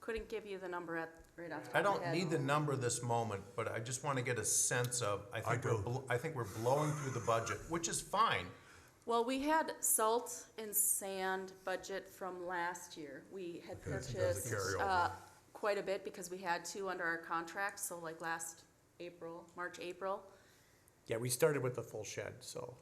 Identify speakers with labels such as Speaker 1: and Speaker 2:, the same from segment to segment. Speaker 1: Couldn't give you the number at, right off the
Speaker 2: I
Speaker 1: top of
Speaker 2: don't
Speaker 1: my head.
Speaker 2: need the number this moment, but I just want to get a sense of, I think we're,
Speaker 3: do.
Speaker 2: bl- I think we're blowing through the budget, which is fine.
Speaker 1: Well, we had salt and sand budget from last year. We had
Speaker 3: Okay, so that's a
Speaker 1: purchased,
Speaker 3: carryover.
Speaker 1: uh, quite a bit because we had two under our contract, so like last April, March, April.
Speaker 4: Yeah, we started with the full shed, so.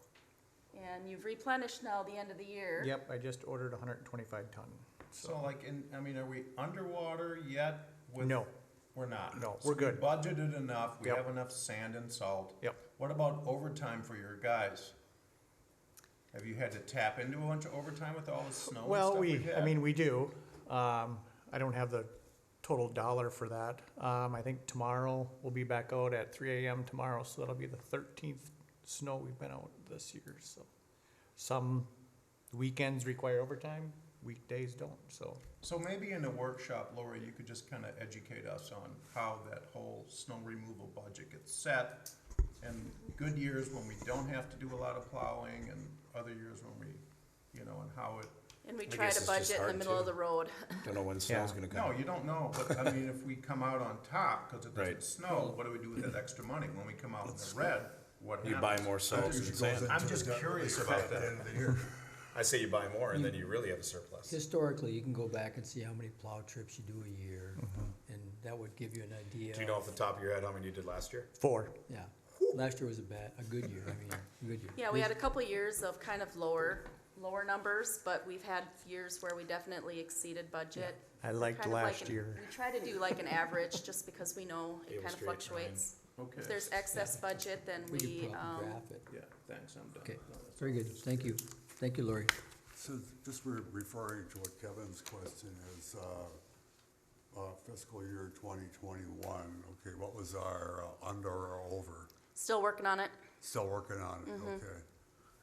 Speaker 1: And you've replenished now the end of the year.
Speaker 4: Yep, I just ordered hundred and twenty-five ton.
Speaker 2: So like, in, I mean, are we underwater yet? with-
Speaker 4: No.
Speaker 2: We're not.
Speaker 4: No,
Speaker 2: So
Speaker 4: we're good.
Speaker 2: We budgeted enough, we
Speaker 4: Yep.
Speaker 2: have enough sand and salt.
Speaker 4: Yep.
Speaker 2: What about overtime for your guys? Have you had to tap into a bunch of overtime with all the snow and
Speaker 4: Well,
Speaker 2: stuff
Speaker 4: we,
Speaker 2: we've
Speaker 4: I
Speaker 2: had?
Speaker 4: mean, we do. Um, I don't have the total dollar for that. Um, I think tomorrow, we'll be back out at three AM tomorrow, so that'll be the thirteenth snow we've been out this year, so. Some weekends require overtime, weekdays don't, so.
Speaker 2: So maybe in a workshop, Lori, you could just kind of educate us on how that whole snow removal budget gets set. And good years when we don't have to do a lot of plowing and other years when we, you know, and how it,
Speaker 1: And we
Speaker 3: I
Speaker 1: try
Speaker 3: guess
Speaker 1: to
Speaker 3: it's just
Speaker 1: budget in the middle
Speaker 3: hard
Speaker 1: of
Speaker 3: to-
Speaker 1: the road.
Speaker 3: Don't know when snow's
Speaker 4: Yeah.
Speaker 3: gonna
Speaker 2: no,
Speaker 3: come.
Speaker 2: you don't know, but I mean, if we come out on top, cause it doesn't
Speaker 3: Right.
Speaker 2: snow, what do we do with that extra money? When we come out in the red, what happens?
Speaker 3: You buy more salt and sand.
Speaker 2: I'm just curious about that.
Speaker 5: I say you buy more and then you really have a surplus.
Speaker 6: Historically, you can go back and see how many plow trips you do a year, and that would give you an idea.
Speaker 5: Do you know off the top of your head how many you did last year?
Speaker 4: Four.
Speaker 6: Yeah, last year was a bad, a good year, I mean, a good year.
Speaker 1: Yeah, we had a couple years of kind of lower, lower numbers, but we've had years where we definitely exceeded budget.
Speaker 4: I liked
Speaker 1: Kind of like
Speaker 4: last
Speaker 1: an-
Speaker 4: year.
Speaker 1: We try to do like an average, just because we know it kind of
Speaker 5: Illustrate, Ryan.
Speaker 1: fluctuates. If
Speaker 2: Okay,
Speaker 1: there's excess budget, then
Speaker 6: We could
Speaker 1: we,
Speaker 6: probably
Speaker 1: um,
Speaker 6: graph it.
Speaker 2: yeah, thanks, I'm done.
Speaker 6: Okay,
Speaker 2: No, that's
Speaker 6: very
Speaker 2: all.
Speaker 6: good, thank you, thank you, Lori.
Speaker 7: So just re- referring to what Kevin's question is, uh, uh, fiscal year 2021, okay, what was our uh, under or over?
Speaker 1: still working on it.
Speaker 7: Still working on it, okay.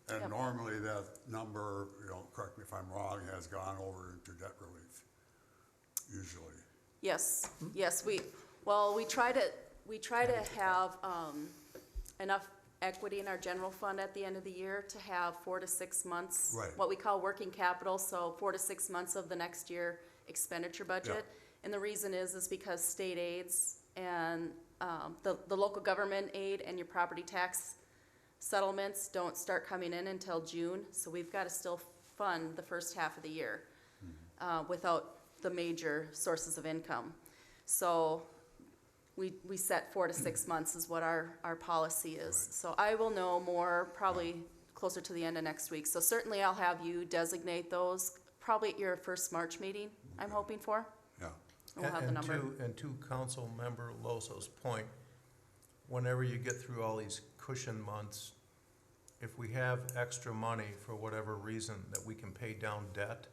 Speaker 1: Yep.
Speaker 7: And normally that number, you know, correct me if I'm wrong, has gone over into debt relief, usually.
Speaker 1: Yes, yes, we, well, we try to, we try to have, um, enough equity in our general fund at the end of the year to have four to six months.
Speaker 7: Right.
Speaker 1: What we call working capital, so four to six months of the next year expenditure budget. And the reason is, is because state aids and, um, the, the local government aid and your property tax settlements don't start coming in until June, so we've gotta still fund the first half of the year uh, without the major sources of income. So we, we set four to six months is what our, our policy is. So I will know more probably closer to the end of next week. So certainly I'll have you designate those, probably at your first March meeting, I'm hoping for.
Speaker 7: Yeah,
Speaker 1: And we'll have the
Speaker 2: And-
Speaker 1: number.
Speaker 2: And to, and to council member Loso's point, whenever you get through all these cushion months, if we have extra money for whatever reason that we can pay down debt,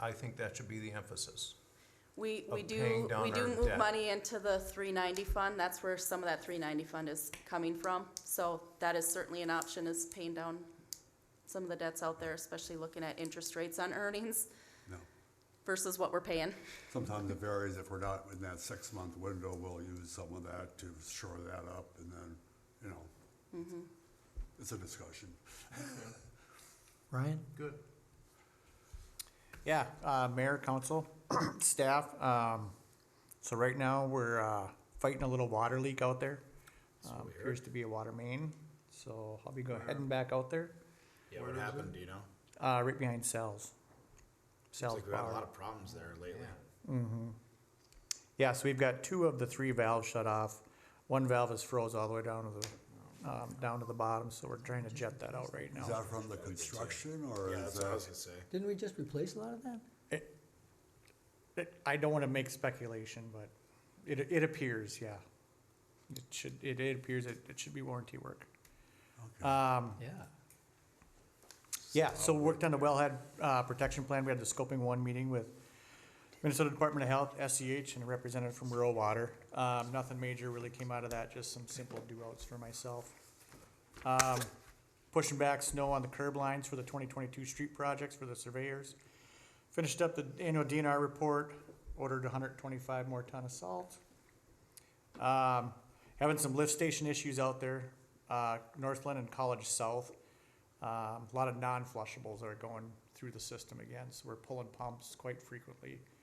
Speaker 2: I think that should be the emphasis.
Speaker 1: We, we
Speaker 2: of paying
Speaker 1: do,
Speaker 2: down
Speaker 1: we do
Speaker 2: our
Speaker 1: move
Speaker 2: debt.
Speaker 1: money into the three ninety fund, that's where some of that three ninety fund is coming from. So that is certainly an option, is paying down some of the debts out there, especially looking at interest rates on earnings
Speaker 7: no.
Speaker 1: versus what we're paying.
Speaker 7: Sometimes it varies, if we're not in that six-month window, we'll use some of that to shore that up, and then, you know. It's a discussion.
Speaker 6: Ryan?
Speaker 2: Good.
Speaker 4: Yeah, uh, mayor, council, staff, um, so right now, we're, uh, fighting a little water leak out there. Um, appears to be a water main, so I'll be go heading back out there,
Speaker 5: Yeah, what happened, do you know?
Speaker 4: uh, right behind cells.
Speaker 5: It's
Speaker 4: Cells
Speaker 5: like we had a
Speaker 4: power.
Speaker 5: lot of problems there lately.
Speaker 4: Yeah, so we've got two of the three valves shut off. One valve is froze all the way down to the, um, down to the bottom, so we're trying to jet that out right
Speaker 7: Is
Speaker 4: now.
Speaker 7: that from the construction, or
Speaker 5: Yeah,
Speaker 7: is
Speaker 5: that's what I was
Speaker 7: that?
Speaker 5: gonna say.
Speaker 6: Didn't we just replace a lot of that?
Speaker 4: It- it- I don't wanna make speculation, but it, it appears, yeah. It should, it, it appears it, it should be warranty work.
Speaker 6: Yeah,
Speaker 4: Yeah, so we worked on the wellhead uh, protection plan. We had the scoping one meeting with Minnesota Department of Health, SEH, and a representative from Rural Water. Um, Nothing major really came out of that, just some simple do-outs for myself. Um, Pushing back snow on the curb lines for the 2022 street projects for the surveyors. Finished up the annual DNR report, ordered 125 more ton of salt. Um, having some lift station issues out there, uh, Northland and College South. Um, a lot of non-flushables that are going through the system again, so we're pulling pumps quite frequently.